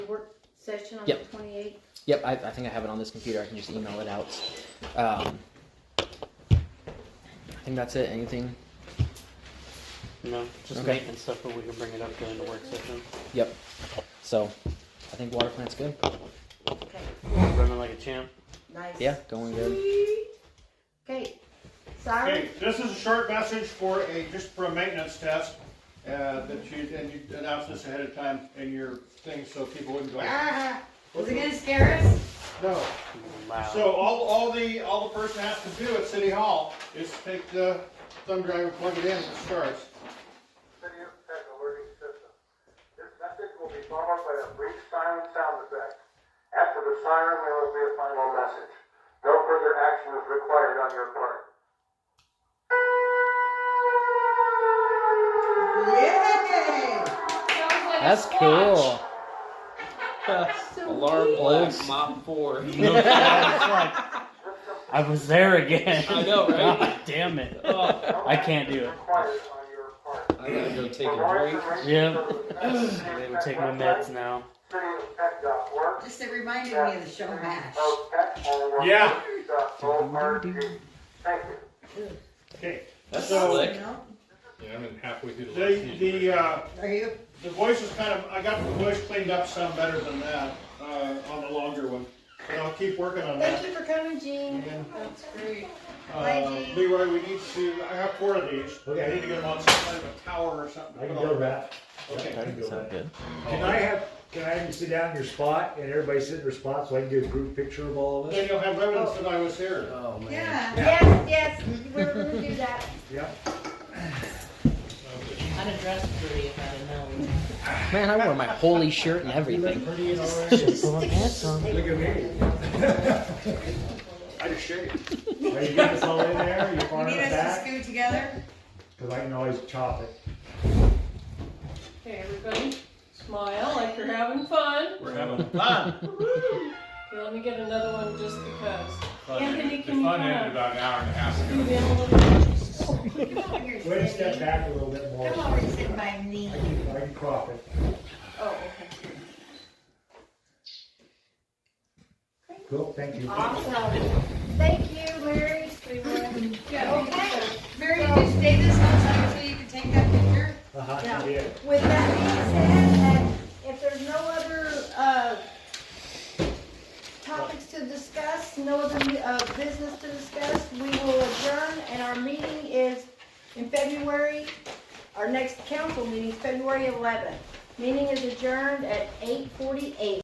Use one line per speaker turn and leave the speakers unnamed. session on
Yep.
the 28th?
Yep, I, I think I have it on this computer. I can just email it out. Um, I think that's it. Anything?
No, just
Okay.
maintenance stuff, but we can bring it up during the work session.
Yep. So, I think water plant's good.
Okay,
Running like a champ.
nice.
Yeah, going good.
Sweet. Okay,
Okay,
Cyrus,
this is a short message for a, just for a maintenance test, uh, that you, and you announced this ahead of time in your thing, so people wouldn't go. "Ah."
Is it gonna scare us?
No,
Loud.
so all, all the, all the person has to do at City Hall is take the thumb drive and plug it in, it starts.
City has a alerting system. This message will be followed by a brief silent sound effect. After the siren, there will be a final message. No further action is required on your part.
Yay!
Sounds like a
That's
squatch.
cool.
Alarm
Old-
black, mop four.
I was there again.
I know, right?
God damn it.
Oh,
I can't do it.
Required on your part.
I gotta go take
For more
a drink.
information
Yeah.
for the message,
They would take my meds now.
cityofpet.org,
Just it reminded me of the show Mash.
of pet, or
Yeah.
dot org. Thank you.
Okay,
That's
So-
slick.
No?
Yeah, I'm in halfway through the last
the,
season.
the, uh,
Are you?
the voice is kind of, I got the voice cleaned up some better than that, uh, on the longer one, but I'll keep working on that.
thank you for coming, Gene.
Yeah.
That's great.
Uh, Leroy, we need to, I have four of these. I need to get them on some kind of a tower or something.
I can go back. I
Okay.
can go
Sound
back.
good.
Can I have, can I have you sit down in your spot and everybody sit in their spot so I can get a group picture of all of us?
Then you'll have evidence that I was here.
Oh, man.
Yeah.
Yes, yes, we're gonna do that.
Yeah.
I'd have dressed pretty if I'd have known.
Man, I wore my holy shirt and
You look
everything.
pretty and all that.
Put my pants on.
Look at me.
I just shaved.
Are you getting us all in there? You
You
far
need
enough
us to
back?
scoot together?
Cause I can always chop it.
Okay, everybody, smile like you're having fun.
We're having fun.
Okay, let me get another one just because.
Fun-
Anthony,
the
can you
fun
come
ended about
up?
an hour and a half ago.
You've been a little-
Wait
Way to step back a little bit more.
Come over and sit by
I
me.
can, I can crop it.
Oh, okay.
Cool, thank you.
Awesome. Thank you, Larry.
Yeah, okay. Mary, did you stay this whole time so you could take that picture?
Uh-huh, you did.
With that being said, and if there's no other, uh, topics to discuss, no other, uh, business to discuss, we will adjourn, and our meeting is in February, our next council meeting, is February eleventh. Meeting is adjourned at eight forty-eight.